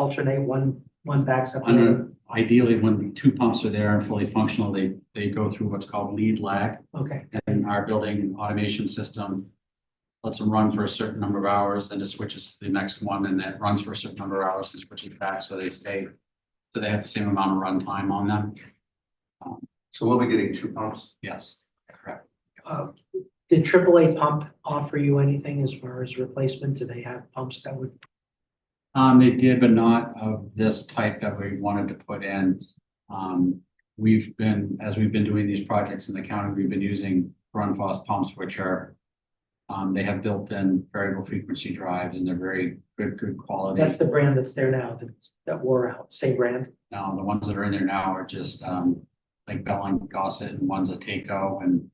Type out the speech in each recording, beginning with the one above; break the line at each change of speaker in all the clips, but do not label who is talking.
alternate one, one backs up. the
Under-
other.
Ideally, when the two pumps are there and fully functional, they, they go through what's called lead lag.
Okay,
And our building automation system lets them run for a certain number of hours, then it switches to the next one, and it runs for a certain number of hours and switches back, so they stay. So they have the same amount of runtime on them.
So we'll be getting two pumps.
Yes, correct.
uh, did AAA pump offer you anything as far as replacement? Do they have pumps that would,
Um, they did, but not of this type that we wanted to put in. Um, we've been, as we've been doing these projects in the county, we've been using Grundfos pumps, which are. Um, they have built-in variable frequency drives and they're very good, good quality.
that's the brand that's there now, that, that wore out, same brand?
Now, the ones that are in there now are just, um, like Bell and Gossett and one's a Taco and.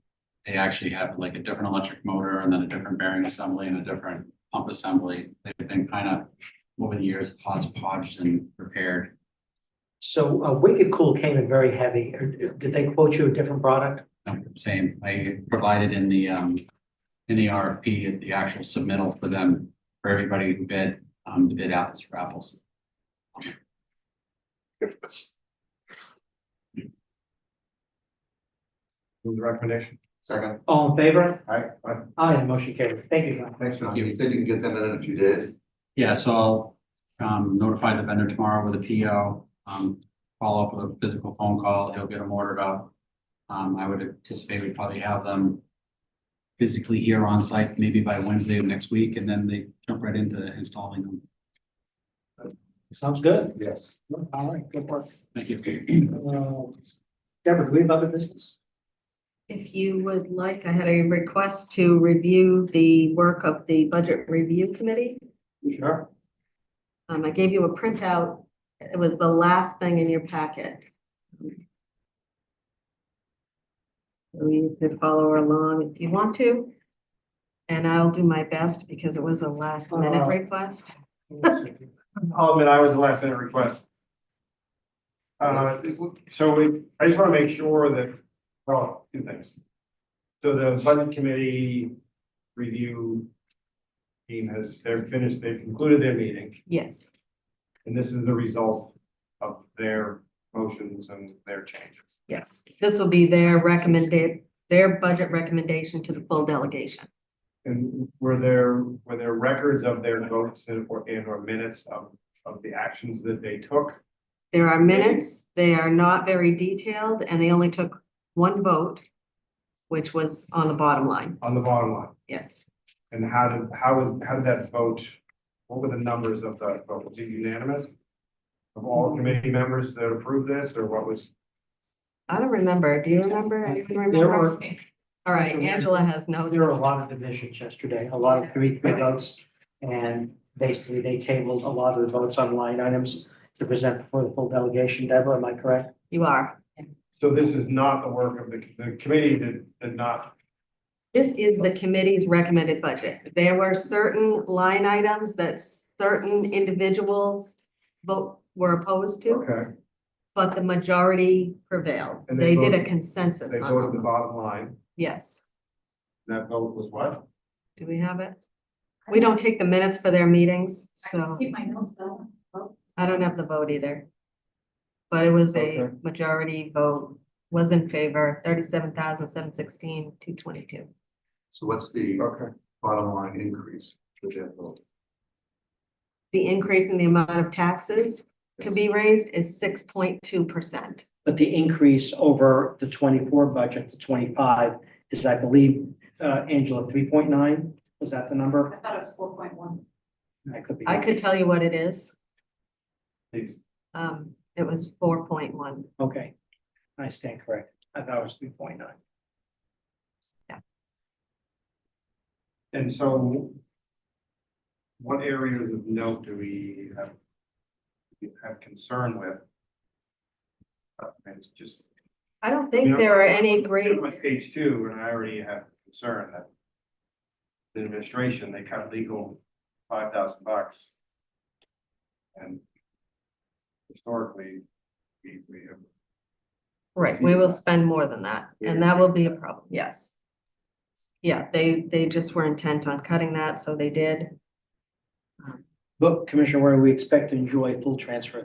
They actually have like a different electric motor and then a different bearing assembly and a different pump assembly. They've been kind of over the years hodgepodge and repaired.
So uh, Wicked Cool came in very heavy. Or Did they quote you a different product?
No, same, I provided in the, um, in the RFP, the actual submittal for them, for everybody who bid, um, to bid apples for apples.
Move the recommendation. Second.
All in favor?
All right, all right.
Aye, the motion carried. Thank you, John.
Thanks, John.
you.
You said you can get them in in a few days.
Yeah, so I'll, um, notify the vendor tomorrow with a PO, um, follow up with a physical phone call, he'll get them ordered up. Um, I would anticipate we probably have them physically here on site, maybe by Wednesday of next week, and then they jump right into installing them.
Sounds good.
Yes.
All right, good work.
Thank you.
Uh, Deborah, do we have other business?
If you would like, I had a request to review the work of the Budget Review Committee.
Sure.
Um, I gave you a printout. It was the last thing in your packet. So you could follow along if you want to. And I'll do my best because it was a last minute
Uh,
request.
I'll admit I was the last minute request. Uh, so we, I just want to make sure that, well, two things. So the budget committee review team has, they're finished, they've concluded their meeting,
Yes,
and this is the result of their motions and their changes.
yes. This will be their recommended, their budget recommendation to the full delegation.
And were there, were there records of their votes and or, and or minutes of, of the actions that they took?
There are minutes, they are not very detailed, and they only took one vote, which was on the bottom line,
on the bottom line?
yes.
And how did, how was, how did that vote, what were the numbers of that vote? Was it unanimous? Of all committee members that approved this, or what was?
I don't remember, do you remember? I didn't
There
remember.
were,
All right, Angela has
there were a
no,
lot of divisions yesterday, a lot of three, three votes. And basically, they tabled a lot of the votes on line items to present before the full delegation. Deborah, am I correct?
you are.
So this is not the work of the, the committee did, did not,
This is the committee's recommended budget. There were certain line items that certain individuals vote, were opposed to,
okay,
but the majority prevailed.
And
They
they
did a
voted-
consensus
they
on
voted the
them,
bottom line,
yes.
that vote was what?
Do we have it? We don't take the minutes for their meetings,
I just
so.
keep my notes, but
I don't have the vote either. But it was a
Okay.
majority vote, was in favor, thirty-seven thousand, seven sixteen, two twenty-two.
So what's the
Okay,
bottom line increase with that vote?
The increase in the amount of taxes to be raised is six point two percent.
But the increase over the twenty-four budget to twenty-five is, I believe, uh, Angela, three point nine? Was that the number?
I thought it was four point one.
I could be.
I could tell you what it is.
please,
Um, it was four point one.
Okay. I stand corrected. I thought it was three point nine.
and so. What areas of note do we have? Have concern with? Uh, And it's just,
I don't
Yeah.
think there are any great,
I'm on page two, and I already have concern that. The administration, they cut legal five thousand bucks. And. Historically, we, we have,
right, we will spend more than that, and that will be a problem, yes. Yeah, they, they just were intent on cutting that, so they did.
But Commissioner Warren, we expect to enjoy a full transfer